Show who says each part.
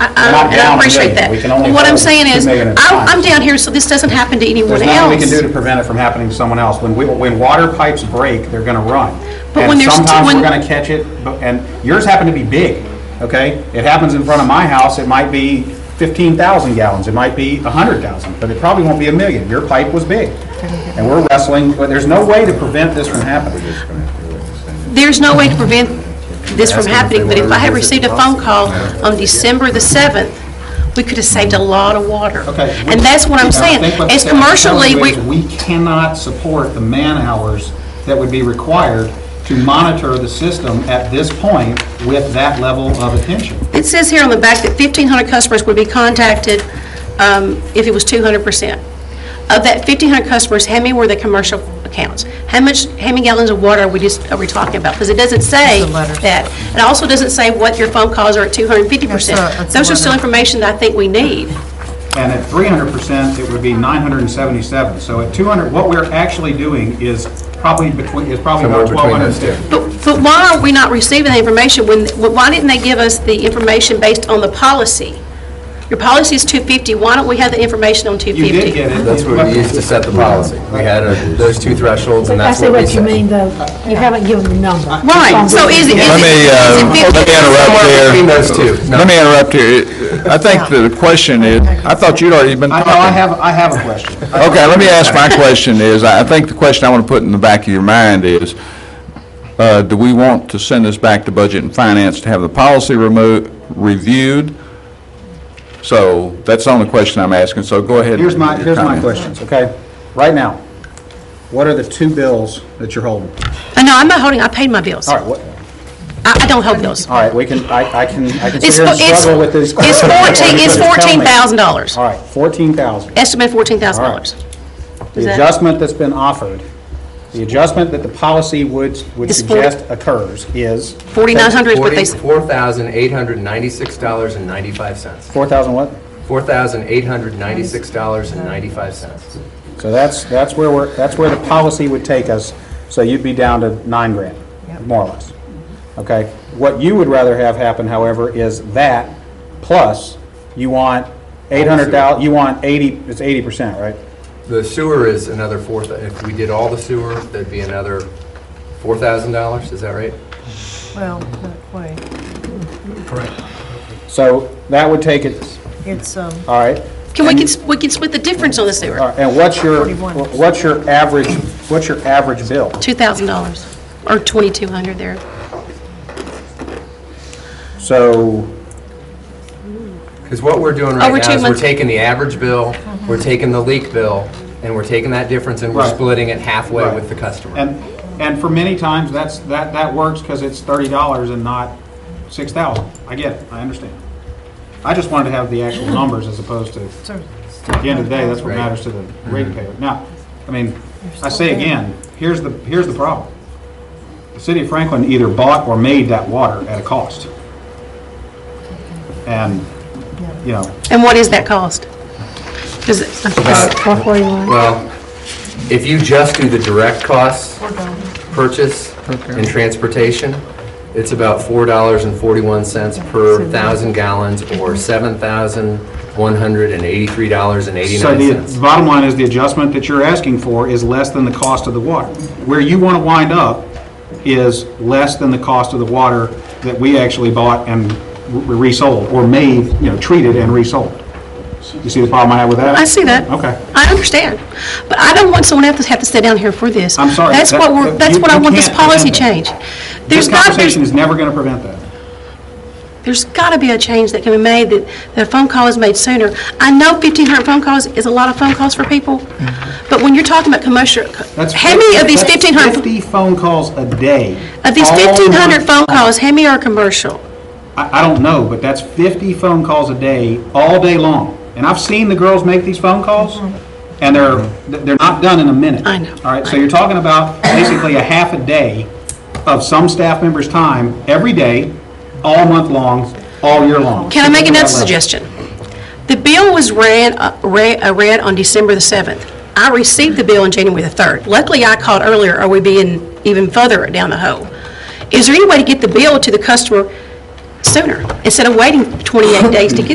Speaker 1: I-
Speaker 2: We're not
Speaker 1: I I
Speaker 2: down a
Speaker 1: appreciate
Speaker 2: million.
Speaker 1: that.
Speaker 2: We can only
Speaker 1: But What I'm
Speaker 2: hold
Speaker 1: saying
Speaker 2: two
Speaker 1: is,
Speaker 2: million at a
Speaker 1: I'm
Speaker 2: time.
Speaker 1: I'm down here, so this doesn't happen to anyone
Speaker 2: There's
Speaker 1: else.
Speaker 2: nothing we can do to prevent it from happening to someone else. When we, when water pipes break, they're gonna run.
Speaker 1: But when there's two-
Speaker 2: And sometimes
Speaker 1: when-
Speaker 2: we're gonna catch it, but- and yours happened to be big, okay? It happens in front of my house, it might be 15,000 gallons, it might be 100,000, but it probably won't be a million. Your pipe was big. And we're wrestling, but there's no way to prevent this from happening.
Speaker 1: There's no way to prevent this from happening, but if I had received a phone call on December the 7th, we could have saved a lot of water.
Speaker 2: Okay.
Speaker 1: And that's what I'm
Speaker 2: I
Speaker 1: saying.
Speaker 2: think what
Speaker 1: As
Speaker 2: the staff's telling
Speaker 1: commercially,
Speaker 2: you
Speaker 1: we,
Speaker 2: is We cannot support the man-hours that would be required to monitor the system at this point with that level of attention.
Speaker 1: it says here on the back that 1,500 customers would be contacted um, if it was 200%. Of that 1,500 customers, how many were the commercial accounts? How much, how many gallons of water are we just, are we talking about? Because it doesn't say that. It also doesn't say what your phone calls are at 250%.
Speaker 3: That's a-
Speaker 1: Those are still
Speaker 3: letter.
Speaker 1: information that I think we need.
Speaker 2: And at 300%, it would be 977. So at 200, what we're actually doing is probably between, is probably
Speaker 4: Somewhere
Speaker 2: about
Speaker 4: between those two.
Speaker 2: 1,250.
Speaker 1: But but why are we not receiving the information when, why didn't they give us the information based on the policy? Your policy is 250, why don't we have the information on
Speaker 2: You
Speaker 1: 250?
Speaker 2: did get it.
Speaker 4: That's what we used to set the policy. We had uh, those two thresholds, and
Speaker 5: I
Speaker 4: that's
Speaker 5: see
Speaker 4: what we
Speaker 5: what you
Speaker 4: set.
Speaker 5: mean, though. You haven't given the number.
Speaker 1: Right, so is it, is
Speaker 6: Let
Speaker 1: it-
Speaker 6: me, uh,
Speaker 1: is it
Speaker 6: let me
Speaker 1: 50?
Speaker 6: interrupt
Speaker 4: Somewhere between
Speaker 6: here.
Speaker 4: those two. No.
Speaker 6: Let me interrupt here. I think the question is, I thought you'd already been
Speaker 2: I
Speaker 6: talking.
Speaker 2: know, I have, I have a question.
Speaker 6: Okay, let me ask my question is, I I think the question I want to put in the back of your mind is, uh, do we want to send this back to Budget and Finance to have the policy remo- reviewed? So that's the only question I'm asking, so go ahead.
Speaker 2: Here's my,
Speaker 6: with your
Speaker 2: here's my
Speaker 6: comment.
Speaker 2: questions, okay? Right now, what are the two bills that you're holding?
Speaker 1: Uh, No, I'm not holding, I paid my bills.
Speaker 2: All
Speaker 1: I
Speaker 2: right, what,
Speaker 1: I don't hold bills.
Speaker 2: all right, we can, I I can, I can sit
Speaker 1: It's
Speaker 2: here and
Speaker 1: fo- it's-
Speaker 2: struggle with these.
Speaker 1: It's 14, it's
Speaker 2: Just tell me.
Speaker 1: $14,000,
Speaker 2: All right, 14,000.
Speaker 1: estimate $14,000. Is
Speaker 2: The
Speaker 1: that-
Speaker 2: adjustment that's been offered, the adjustment that the policy would, would
Speaker 1: Is forty-
Speaker 2: suggest occurs is
Speaker 1: 4,900 is what they, s-
Speaker 4: $4,896.95.
Speaker 2: 4,000 what?
Speaker 4: $4,896.95.
Speaker 2: So that's, that's where we're, that's where the policy would take us, so you'd be down to nine grand, more or less. Okay? What you would rather have happen, however, is that, plus, you want 800,000, you want 80, it's 80%, right?
Speaker 4: The sewer is another four, thou- if we did all the sewer, that'd be another $4,000, is that right?
Speaker 3: Well, not quite.
Speaker 2: So that would take it,
Speaker 3: It's, um,
Speaker 2: all right?
Speaker 1: can we, can s- we can split the difference on the
Speaker 2: All
Speaker 1: sewer?
Speaker 2: right, And what's your,
Speaker 3: 41%.
Speaker 2: what's your average, what's your average bill?
Speaker 1: $2,000, or 2,200 there.
Speaker 2: So,
Speaker 4: Because what Oh, we're doing right
Speaker 1: Over two
Speaker 4: now is we're
Speaker 1: months.
Speaker 4: taking the Mm-hmm. average bill, we're taking the leak bill, and we're taking that difference and we're
Speaker 2: Right.
Speaker 4: splitting it halfway
Speaker 2: Right.
Speaker 4: with the customer.
Speaker 2: and, and for many times, that's, that, that works because it's thirty dollars and not six thousand. I get it, I understand. I just wanted to have the actual numbers as opposed to,
Speaker 3: so.
Speaker 2: at the end of the day, that's what
Speaker 4: Right.
Speaker 2: matters to the ratepayer. Now, I mean, I say again, here's the, here's the problem. The city of Franklin either bought or made that water at a cost. And, you know,
Speaker 1: And what is that cost? Does it-
Speaker 4: Well, if you just do the direct costs, purchase and transportation, it's about $4.41 per thousand gallons or
Speaker 2: So the
Speaker 4: $7,183.89.
Speaker 2: bottom line is the adjustment that you're asking for is less than the cost of the water. Where you want to wind up is less than the cost of the water that we actually bought and re- resold, or made, you know, treated and resold. You see the problem I have with that?
Speaker 1: I see that.
Speaker 2: Okay.
Speaker 1: I understand. But I don't want someone else to have to sit down here for this.
Speaker 2: I'm sorry,
Speaker 1: That's
Speaker 2: that-
Speaker 1: what we're,
Speaker 2: that-
Speaker 1: that's
Speaker 2: you-
Speaker 1: what I
Speaker 2: you
Speaker 1: want this
Speaker 2: can't
Speaker 1: policy
Speaker 2: prevent
Speaker 1: change.
Speaker 2: that.
Speaker 1: There's
Speaker 2: This
Speaker 1: got, there's,
Speaker 2: conversation is never going to prevent that.
Speaker 1: there's got to be a change that can be made, that, that a phone call is made sooner. I know 1,500 phone calls is a lot of phone calls for people, but when you're talking about commercial,
Speaker 2: That's
Speaker 1: how many of these
Speaker 2: that's
Speaker 1: 1,500,
Speaker 2: 50 phone calls a day.
Speaker 1: of these
Speaker 2: All
Speaker 1: 1,500
Speaker 2: month
Speaker 1: phone calls, how many are commercial?
Speaker 2: I, I don't know, but that's 50 phone calls a day, all day long. And I've seen the girls make these phone calls, and they're, they're not done in a minute.
Speaker 1: Mm-hmm. I know.
Speaker 2: All right, so you're talking about basically a half a day of some staff member's time, every day, all month long, all year long.
Speaker 1: Can I make
Speaker 2: Think about
Speaker 1: another
Speaker 2: that.
Speaker 1: suggestion? The bill was read, uh, re- uh, read on December the 7th. I received the bill on January the 3rd. Luckily, I called earlier, or we'd be in even further down the hole. Is there any way to get the bill to the customer sooner, instead of waiting 28 days to get